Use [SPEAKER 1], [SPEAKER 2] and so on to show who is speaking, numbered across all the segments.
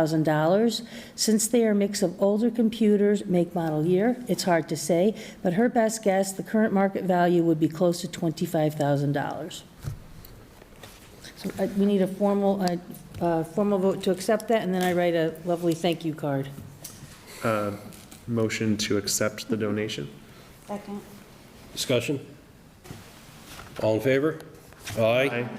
[SPEAKER 1] $7,000. Since they are a mix of older computers, make, model, year, it's hard to say, but her best guess, the current market value would be close to $25,000. So uh, we need a formal, uh, uh, formal vote to accept that, and then I write a lovely thank you card.
[SPEAKER 2] Motion to accept the donation.
[SPEAKER 3] Second.
[SPEAKER 4] Discussion? All in favor? Aye.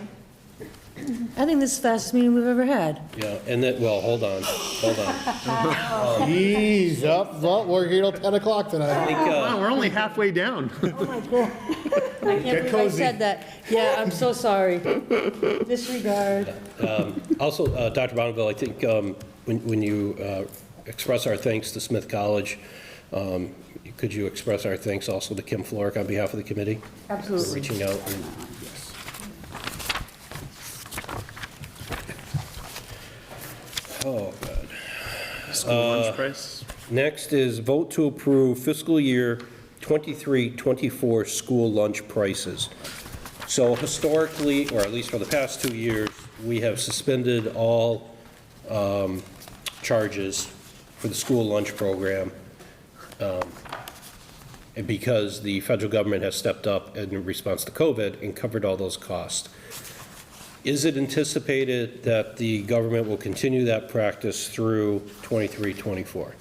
[SPEAKER 1] I think this is the fastest meeting we've ever had.
[SPEAKER 4] Yeah, and then, well, hold on, hold on. I
[SPEAKER 5] Ease up, well, we're here till 10 o'clock tonight.
[SPEAKER 4] think, uh,
[SPEAKER 2] We're only halfway down.
[SPEAKER 1] I can't believe I
[SPEAKER 5] cozy.
[SPEAKER 1] said that. Yeah, I'm so sorry. Disregard.
[SPEAKER 4] Also, uh, Dr. Bonneville, I think um, when when you uh, express our thanks to Smith College, um, could you express our thanks also to Kim Floric on behalf of the committee? For
[SPEAKER 1] Absolutely.
[SPEAKER 4] reaching out and
[SPEAKER 2] School lunch price.
[SPEAKER 4] Next is vote to approve fiscal year 23-24 school lunch prices. So historically, or at least for the past two years, we have suspended all um, charges for the school lunch program um, and because the federal government has stepped up in response to COVID and covered all those costs. Is it anticipated that the government will continue that practice through 23, 24?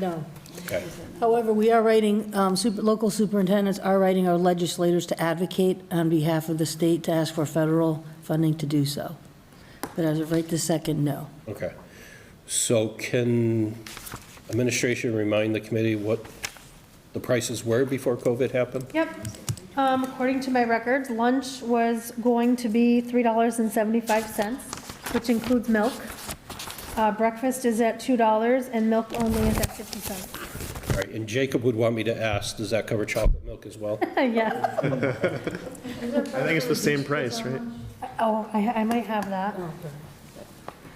[SPEAKER 1] No.
[SPEAKER 4] Okay.
[SPEAKER 1] However, we are writing, um, super- local superintendents are writing our legislators to advocate on behalf of the state to ask for federal funding to do so. But as of right this second, no.
[SPEAKER 4] Okay. So can administration remind the committee what the prices were before COVID happened?
[SPEAKER 6] Yep. Um, According to my records, lunch was going to be $3.75, which includes milk. Uh, Breakfast is at $2, and milk only is at 50 cents.
[SPEAKER 4] All right, and Jacob would want me to ask, does that cover chocolate milk as well?
[SPEAKER 6] Yes.
[SPEAKER 2] I think it's the same price, right?
[SPEAKER 6] Oh, I I might have that,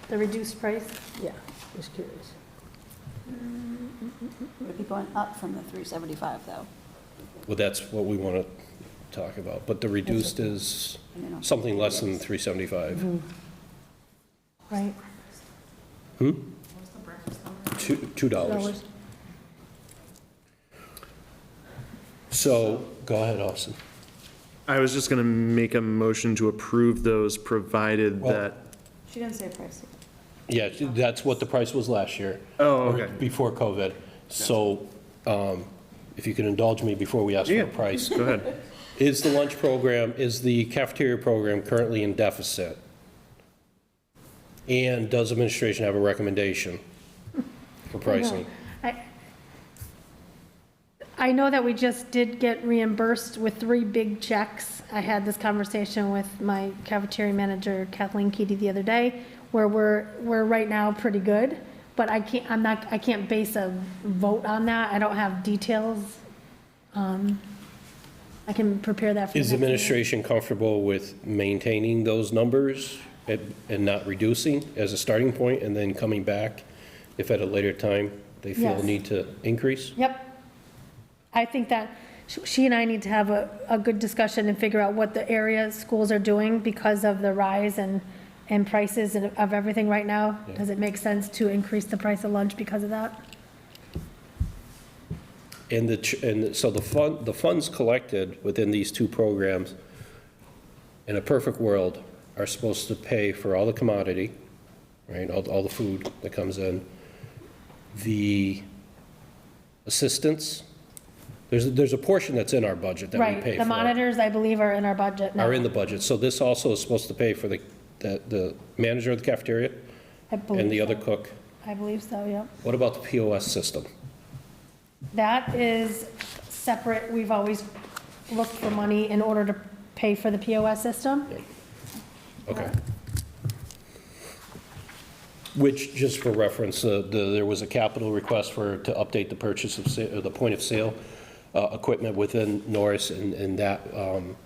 [SPEAKER 6] the reduced price.
[SPEAKER 1] Yeah, just curious.
[SPEAKER 3] Would be going up from the 375, though.
[SPEAKER 4] Well, that's what we want to talk about, but the reduced is
[SPEAKER 3] I mean,
[SPEAKER 4] something less than 375.
[SPEAKER 6] Right.
[SPEAKER 4] Hmm? Two, $2. So, go ahead, Austin.
[SPEAKER 2] I was just gonna make a motion to approve those, provided
[SPEAKER 4] Well-
[SPEAKER 2] that,
[SPEAKER 3] She didn't say price.
[SPEAKER 4] Yeah, that's what the price was last year.
[SPEAKER 2] Oh,
[SPEAKER 4] or
[SPEAKER 2] okay.
[SPEAKER 4] Before COVID. So um, if you can indulge me before we ask for
[SPEAKER 2] Yeah.
[SPEAKER 4] a price.
[SPEAKER 2] go ahead.
[SPEAKER 4] Is the lunch program, is the cafeteria program currently in deficit? And does administration have a recommendation for pricing?
[SPEAKER 6] I- I know that we just did get reimbursed with three big checks. I had this conversation with my cafeteria manager Kathleen Keaty the other day, where we're, we're right now pretty good, but I can't, I'm not, I can't base a vote on that. I don't have details. Um, I can prepare that for you.
[SPEAKER 4] Is administration comfortable with maintaining those numbers and and not reducing as a starting point and then coming back if at a later time they feel
[SPEAKER 6] Yes.
[SPEAKER 4] a need to increase?
[SPEAKER 6] Yep. I think that sh- she and I need to have a, a good discussion and figure out what the area schools are doing because of the rise and, and prices and of everything right now. Does it make sense to increase the price of lunch because of that?
[SPEAKER 4] And the, ch- and so the fund, the funds collected within these two programs, in a perfect world, are supposed to pay for all the commodity, right, all, all the food that comes in, the assistance, there's, there's a portion that's in our budget that we pay
[SPEAKER 6] Right,
[SPEAKER 4] for.
[SPEAKER 6] the monitors, I believe, are in our budget now.
[SPEAKER 4] Are in the budget, so this also is supposed to pay for the, the, the manager of the cafeteria
[SPEAKER 6] I
[SPEAKER 4] and the
[SPEAKER 6] believe
[SPEAKER 4] other
[SPEAKER 6] so.
[SPEAKER 4] cook.
[SPEAKER 6] I believe so, yep.
[SPEAKER 4] What about the POS system?
[SPEAKER 6] That is separate, we've always looked for money in order to pay for the POS system.
[SPEAKER 4] Okay. Which, just for reference, uh, the- there was a capital request for, to update the purchase of, sa- uh, the point of sale uh, equipment within Norris, and and that um,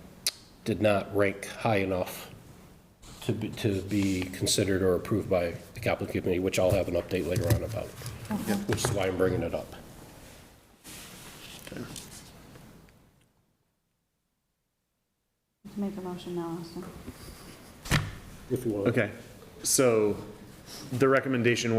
[SPEAKER 4] did not rank high enough to be, to be considered or approved by the capital committee, which I'll have an update later on about, which is why I'm bringing it up.
[SPEAKER 3] Make a motion now, Austin.
[SPEAKER 4] If you want.
[SPEAKER 2] Okay, so the recommendation